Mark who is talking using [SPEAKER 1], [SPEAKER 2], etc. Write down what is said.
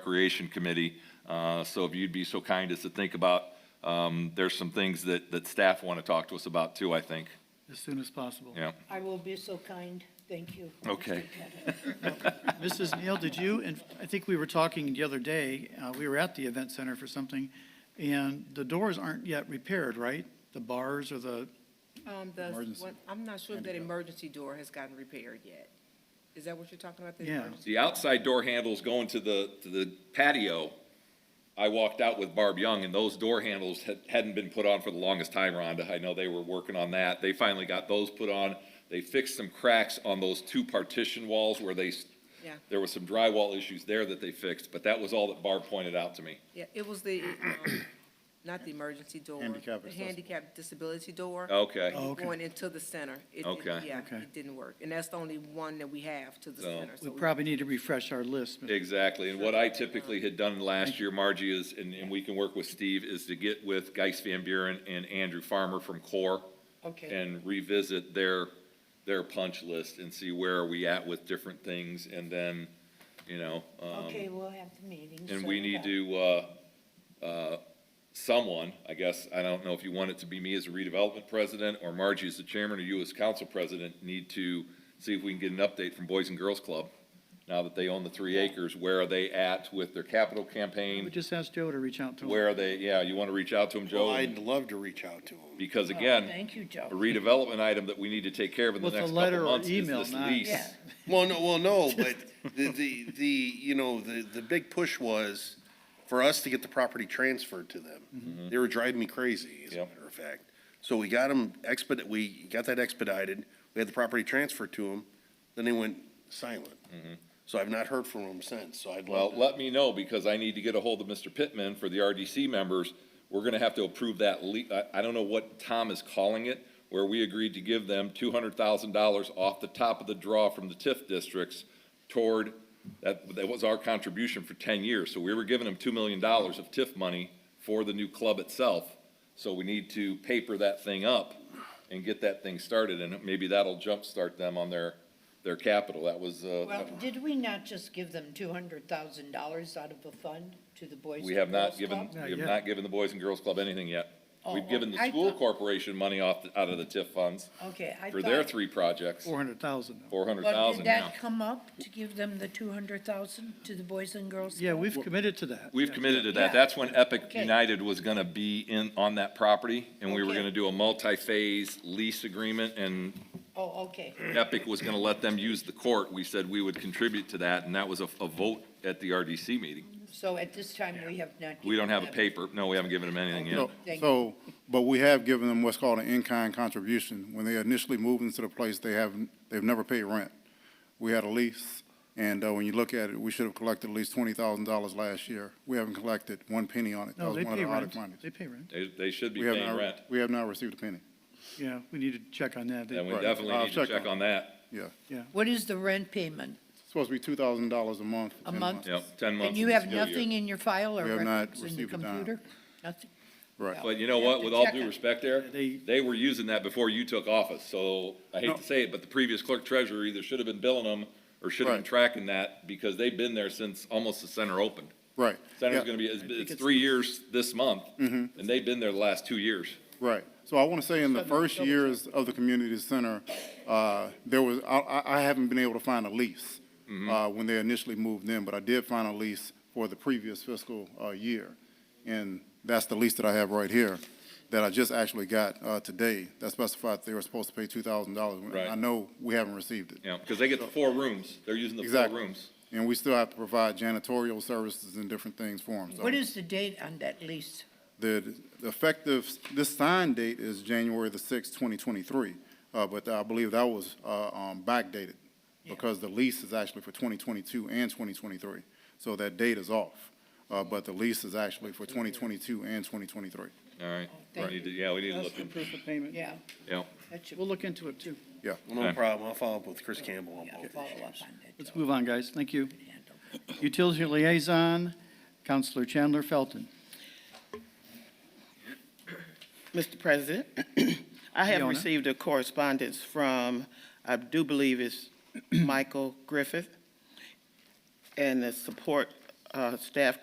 [SPEAKER 1] Recreation Committee. Uh, So if you'd be so kind as to think about, um, there's some things that, that staff want to talk to us about too, I think.
[SPEAKER 2] as soon as possible.
[SPEAKER 1] Yeah.
[SPEAKER 3] I will be so kind, thank you. Mr.
[SPEAKER 1] Okay. Um,
[SPEAKER 3] Pettit.
[SPEAKER 2] Mrs. Neal, did you, and I think we were talking the other day, uh, we were at the event center for something, and the doors aren't yet repaired, right? The bars or the,
[SPEAKER 4] Um, the,
[SPEAKER 5] Emergency.
[SPEAKER 4] one- I'm not sure if that emergency door has gotten repaired yet. Is that what you're talking about? the
[SPEAKER 2] Yeah.
[SPEAKER 4] emergency-
[SPEAKER 1] The outside door handles going to the, to the patio, I walked out with Barb Young, and those door handles had- hadn't been put on for the longest time, Rhonda. I know they were working on that. They finally got those put on. They fixed some cracks on those two partition walls where they, s-
[SPEAKER 4] Yeah.
[SPEAKER 1] there was some drywall issues there that they fixed, but that was all that Barb pointed out to me.
[SPEAKER 4] Yeah, it was the, um, not the emergency door.
[SPEAKER 5] Handicap
[SPEAKER 4] The
[SPEAKER 5] accessible.
[SPEAKER 4] handicap disability door.
[SPEAKER 1] Okay.
[SPEAKER 2] Oh, okay.
[SPEAKER 4] Going into the center. It- it-
[SPEAKER 1] Okay.
[SPEAKER 4] Yeah,
[SPEAKER 2] Okay.
[SPEAKER 4] it didn't work. And that's the only one that we have to the
[SPEAKER 1] So-
[SPEAKER 4] center.
[SPEAKER 2] we
[SPEAKER 4] so we-
[SPEAKER 2] probably need to refresh our list. Mr.
[SPEAKER 1] Exactly, and what I typically had done last year, Margie, is, and, and we can work with Steve, is to get with Geis Van Buren and Andrew Farmer from Core
[SPEAKER 3] Okay,
[SPEAKER 1] and revisit their, their punch list and see where are we at with different things, and then, you know, um,
[SPEAKER 3] okay, we'll have the meeting.
[SPEAKER 1] and
[SPEAKER 3] set
[SPEAKER 1] we
[SPEAKER 3] it
[SPEAKER 1] need
[SPEAKER 3] up.
[SPEAKER 1] to, uh, uh, someone, I guess, I don't know if you want it to be me as a redevelopment president, or Margie as the chairman, or you as council president, need to see if we can get an update from Boys and Girls Club, now that they own the three acres, where are they at with their capital
[SPEAKER 2] We
[SPEAKER 1] campaign?
[SPEAKER 2] just asked Joe to reach out to them.
[SPEAKER 1] Where are they, yeah, you want to reach out to them,
[SPEAKER 5] Well,
[SPEAKER 1] Joe?
[SPEAKER 5] I'd love to reach out to him.
[SPEAKER 1] Because
[SPEAKER 3] Oh,
[SPEAKER 1] again,
[SPEAKER 3] Thank you,
[SPEAKER 1] a
[SPEAKER 3] Joe.
[SPEAKER 1] redevelopment item that we need to take care of in the
[SPEAKER 2] With a
[SPEAKER 1] next
[SPEAKER 2] letter
[SPEAKER 1] couple
[SPEAKER 2] or
[SPEAKER 1] months is
[SPEAKER 2] email,
[SPEAKER 1] this
[SPEAKER 2] not-
[SPEAKER 1] lease.
[SPEAKER 3] Yeah.
[SPEAKER 5] Well, no, well, no, but the, the, the, you know, the, the big push was for us to get the property transferred to them. They were driving me crazy, as a
[SPEAKER 1] Yep.
[SPEAKER 5] matter of fact. So we got them expedite, we got that expedited, we had the property transferred to them, then they went silent. So I've not heard from them since, so I'd
[SPEAKER 1] Well,
[SPEAKER 5] love to.
[SPEAKER 1] let me know, because I need to get a hold of Mr. Pittman for the RDC members. We're gonna have to approve that le, I, I don't know what Tom is calling it, where we agreed to give them two hundred thousand dollars off the top of the draw from the TIF districts toward, that, that was our contribution for ten years. So we were giving them two million dollars of TIF money for the new club itself. So we need to paper that thing up and get that thing started, and maybe that'll jumpstart them on their, their capital. That was, uh,
[SPEAKER 3] Well, did we not just give them two hundred thousand dollars out of a fund to the Boys and Girls Club?
[SPEAKER 1] We have not given,
[SPEAKER 2] Not
[SPEAKER 1] we have
[SPEAKER 2] yet.
[SPEAKER 1] not given the Boys and Girls Club anything yet.
[SPEAKER 3] Oh,
[SPEAKER 1] We've given the
[SPEAKER 3] I
[SPEAKER 1] school
[SPEAKER 3] thought-
[SPEAKER 1] corporation money off, the- out of the TIF funds
[SPEAKER 3] Okay, I
[SPEAKER 1] for
[SPEAKER 3] thought.
[SPEAKER 1] their three projects,
[SPEAKER 2] Four hundred thousand.
[SPEAKER 1] four hundred
[SPEAKER 3] Well,
[SPEAKER 1] thousand
[SPEAKER 3] did
[SPEAKER 1] now.
[SPEAKER 3] that come up to give them the two hundred thousand to the Boys and Girls?
[SPEAKER 2] Yeah,
[SPEAKER 3] Club?
[SPEAKER 2] we've committed to that.
[SPEAKER 1] We've
[SPEAKER 2] Yeah.
[SPEAKER 1] committed to that.
[SPEAKER 3] Yeah.
[SPEAKER 1] That's when Epic
[SPEAKER 3] Okay.
[SPEAKER 1] United was gonna be in, on that property, and we were
[SPEAKER 3] Okay.
[SPEAKER 1] gonna do a multi-phase lease agreement, and
[SPEAKER 3] Oh, okay,
[SPEAKER 1] Epic was gonna let them use the court. We said we would contribute to that, and that was a, a vote at the RDC meeting.
[SPEAKER 3] so at this time, we have not.
[SPEAKER 1] We don't have a
[SPEAKER 3] given them-
[SPEAKER 1] paper. No, we haven't given them anything yet.
[SPEAKER 6] So-
[SPEAKER 3] Thank
[SPEAKER 6] So, but we have given them what's called an in-kind contribution. When they initially moved into the place, they have, they've never paid rent. We had a lease, and uh, when you look at it, we should have collected at least twenty thousand dollars last year. We haven't collected one penny on it. That
[SPEAKER 2] No,
[SPEAKER 6] was
[SPEAKER 2] they
[SPEAKER 6] one of
[SPEAKER 2] pay
[SPEAKER 6] the audit
[SPEAKER 2] rent.
[SPEAKER 6] monies.
[SPEAKER 2] They pay rent.
[SPEAKER 1] They, they should be
[SPEAKER 6] We have
[SPEAKER 1] paying
[SPEAKER 6] not-
[SPEAKER 1] rent,
[SPEAKER 6] We have not received a penny,
[SPEAKER 2] Yeah, we need to check on that. They-
[SPEAKER 1] and we
[SPEAKER 6] Right.
[SPEAKER 1] definitely
[SPEAKER 6] I'll
[SPEAKER 1] need to
[SPEAKER 6] check
[SPEAKER 1] check
[SPEAKER 6] on
[SPEAKER 1] on that.
[SPEAKER 6] yeah.
[SPEAKER 3] What is the rent payment?
[SPEAKER 6] It's supposed to be two thousand dollars a month. for
[SPEAKER 3] A
[SPEAKER 6] 10
[SPEAKER 3] month?
[SPEAKER 6] months.
[SPEAKER 1] Yep, ten months.
[SPEAKER 3] And you
[SPEAKER 1] of the
[SPEAKER 3] have
[SPEAKER 1] school year.
[SPEAKER 3] nothing in your file or
[SPEAKER 6] We have not
[SPEAKER 3] records in your
[SPEAKER 6] received a dime.
[SPEAKER 3] computer? Nothing?
[SPEAKER 6] Right.
[SPEAKER 1] But you know
[SPEAKER 3] You have
[SPEAKER 1] what,
[SPEAKER 3] to
[SPEAKER 1] with all
[SPEAKER 3] check
[SPEAKER 1] due
[SPEAKER 3] it.
[SPEAKER 1] respect, Eric,
[SPEAKER 2] They-
[SPEAKER 1] they were using that before you took office, so I hate
[SPEAKER 6] No.
[SPEAKER 1] to say it, but the previous clerk treasurer either should have been billing them or should have been
[SPEAKER 6] Right.
[SPEAKER 1] tracking that, because they've been there since almost the center opened.
[SPEAKER 6] Right.
[SPEAKER 1] Center's
[SPEAKER 6] Yeah.
[SPEAKER 1] gonna be, it's, it's three years this month,
[SPEAKER 6] Mm-hmm.
[SPEAKER 1] and they've been there the last two years.
[SPEAKER 6] Right. So I want to say in the first years of the community center, uh, there was, I- I, I haven't been able to find a lease
[SPEAKER 1] Mm-hmm.
[SPEAKER 6] uh, when they initially moved in, but I did find a lease for the previous fiscal uh, year. And that's the lease that I have right here, that I just actually got uh, today, that specified they were supposed to pay two thousand dollars.
[SPEAKER 1] Right.
[SPEAKER 6] I know we haven't received it.
[SPEAKER 1] Yeah, because they get the four rooms, they're using the four
[SPEAKER 6] Exactly.
[SPEAKER 1] rooms.
[SPEAKER 6] And we still have to provide janitorial services and different things for them. so-
[SPEAKER 3] What is the date on that lease?
[SPEAKER 6] The the effective, this signed date is January the sixth, twenty twenty-three, uh, but I believe that was, uh, um, backdated because the lease is actually for twenty twenty-two and twenty twenty-three. So that date is off, uh, but the lease is actually for twenty twenty-two and twenty twenty-three.
[SPEAKER 1] All right, we
[SPEAKER 3] Oh, Thank
[SPEAKER 1] need to, yeah, we need to
[SPEAKER 2] That's
[SPEAKER 1] look,
[SPEAKER 2] the
[SPEAKER 1] in-
[SPEAKER 2] proof of payment.
[SPEAKER 3] Yeah,
[SPEAKER 1] yeah.
[SPEAKER 3] that should
[SPEAKER 2] We'll look into it too.
[SPEAKER 6] Yeah.
[SPEAKER 5] No problem, I'll follow up with Chris Campbell on
[SPEAKER 3] yeah,
[SPEAKER 5] both.
[SPEAKER 3] follow up on that.
[SPEAKER 2] Let's
[SPEAKER 3] Joe.
[SPEAKER 2] move on, guys. Thank you.
[SPEAKER 3] Handle.
[SPEAKER 2] Utility Liaison, Counselor Chandler Felton.
[SPEAKER 7] Mr. President, I have
[SPEAKER 2] Fiona?
[SPEAKER 7] received a correspondence from, I do believe it's Michael Griffith, and the support uh, staff